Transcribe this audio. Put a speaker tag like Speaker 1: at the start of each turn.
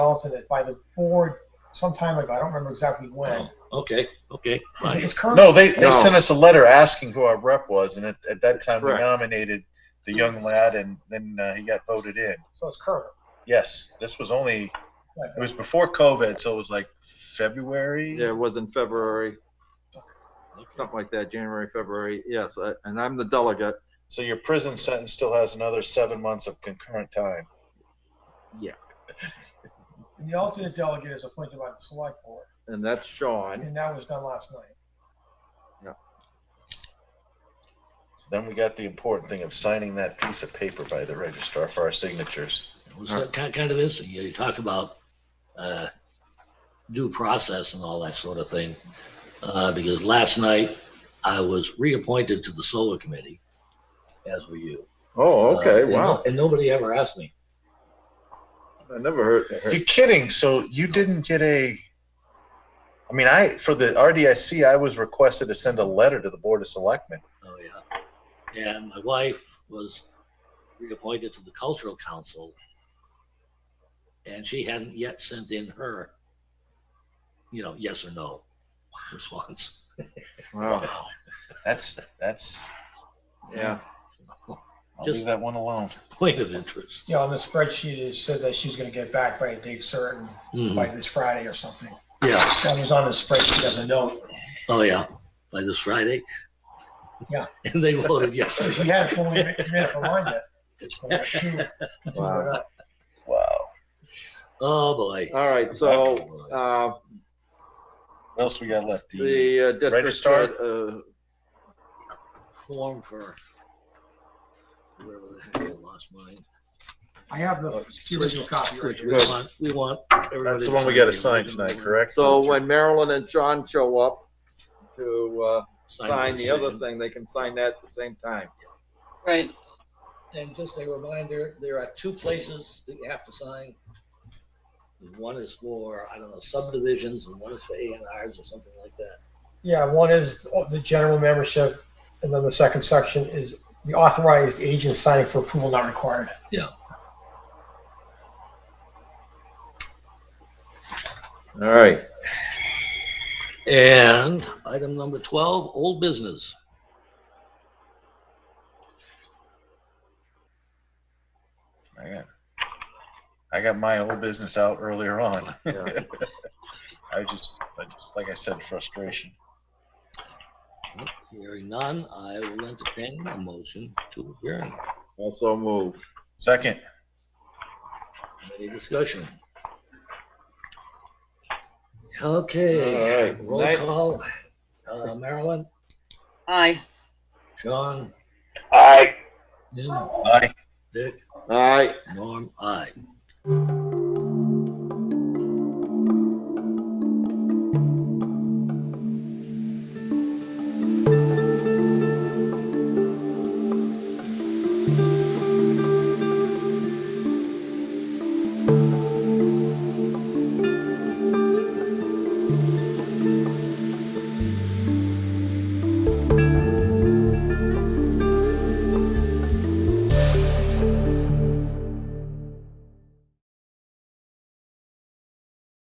Speaker 1: alternate by the board some time ago. I don't remember exactly when.
Speaker 2: Okay, okay, fine.
Speaker 1: It's current.
Speaker 3: No, they, they
Speaker 4: No.
Speaker 3: sent us a letter asking who our rep was, and at, at that time
Speaker 4: Correct.
Speaker 3: we nominated the young lad, and then uh, he got voted in.
Speaker 1: So it's current.
Speaker 3: Yes, this was only it was before COVID, so it was like February.
Speaker 4: Yeah, it was in February, something like that, January, February. Yes, I- and I'm the delegate.
Speaker 3: So your prison sentence still has another seven months of concurrent time.
Speaker 1: And the alternate delegate is appointed by the select board,
Speaker 4: And that's Sean.
Speaker 1: and that was done last night.
Speaker 3: Then we got the important thing of signing that piece of paper by the registrar for our signatures.
Speaker 2: Well, so ki- kind of is, you talk about uh, due process and all that sort of thing. Uh, Because last night, I was reappointed to the solar committee, as were you.
Speaker 4: Oh,
Speaker 2: Uh, and no- And nobody ever asked me.
Speaker 4: I never heard.
Speaker 3: You're kidding. So you didn't get a. I mean, I for the RDIC, I was requested to send a letter to the Board of Selectmen.
Speaker 2: Oh, yeah. And my wife was reappointed to the cultural council. And she hadn't yet sent in her, you know, yes or no response.
Speaker 4: Wow,
Speaker 3: That's that's.
Speaker 4: yeah.
Speaker 3: I'll
Speaker 2: Just-
Speaker 3: leave that one alone.
Speaker 2: Point of interest.
Speaker 1: Yeah, on the spreadsheet, it said that she's going to get back by a date certain, by this Friday or something.
Speaker 2: Mm-hmm. Yeah.
Speaker 1: That was on the spreadsheet as a note.
Speaker 2: Oh, yeah. By this Friday.
Speaker 1: Yeah.
Speaker 2: And they voted yes.
Speaker 1: So she hadn't fully made made up her mind yet. But she continued it up.
Speaker 3: Wow.
Speaker 2: Oh, boy. Oh,
Speaker 4: All right, so,
Speaker 3: oh.
Speaker 4: uh,
Speaker 3: What else we got left? The,
Speaker 4: the uh, district,
Speaker 3: Registrar?
Speaker 4: uh,
Speaker 2: Form for. whatever the heck I lost mine.
Speaker 1: I have the original copy right
Speaker 2: Which
Speaker 1: here.
Speaker 2: we
Speaker 4: Good.
Speaker 2: want, we want. everybody
Speaker 3: that's the
Speaker 2: to
Speaker 3: one we
Speaker 2: sign
Speaker 3: got to
Speaker 2: the
Speaker 3: sign
Speaker 2: original
Speaker 3: tonight,
Speaker 2: one.
Speaker 3: correct?
Speaker 4: so when Marilyn and Sean show up to, uh,
Speaker 2: Sign
Speaker 4: sign the other
Speaker 2: decision.
Speaker 4: thing, they can sign that at the same time.
Speaker 5: Right,
Speaker 2: And just a reminder, there are two places that you have to sign. One is for, I don't know, subdivisions and one is for A and Rs or something like that.
Speaker 1: Yeah, one is the general membership, and then the second section is the authorized agent signing for approval not required.
Speaker 4: All right,
Speaker 2: And item number twelve, old business.
Speaker 3: I got, I got my old business out earlier on.
Speaker 4: Yeah.
Speaker 3: I just, I just, like I said, frustration.
Speaker 2: Hearing none, I will entertain a motion to adjourn.
Speaker 4: also move.
Speaker 3: Second,
Speaker 2: Any discussion? Okay,
Speaker 4: All right.
Speaker 2: roll
Speaker 4: Night.
Speaker 2: call. Uh, Marilyn,
Speaker 5: aye.
Speaker 2: Sean,
Speaker 6: Aye.
Speaker 2: Jim,
Speaker 3: aye.
Speaker 2: Dick,
Speaker 4: All right,
Speaker 2: Norm, I.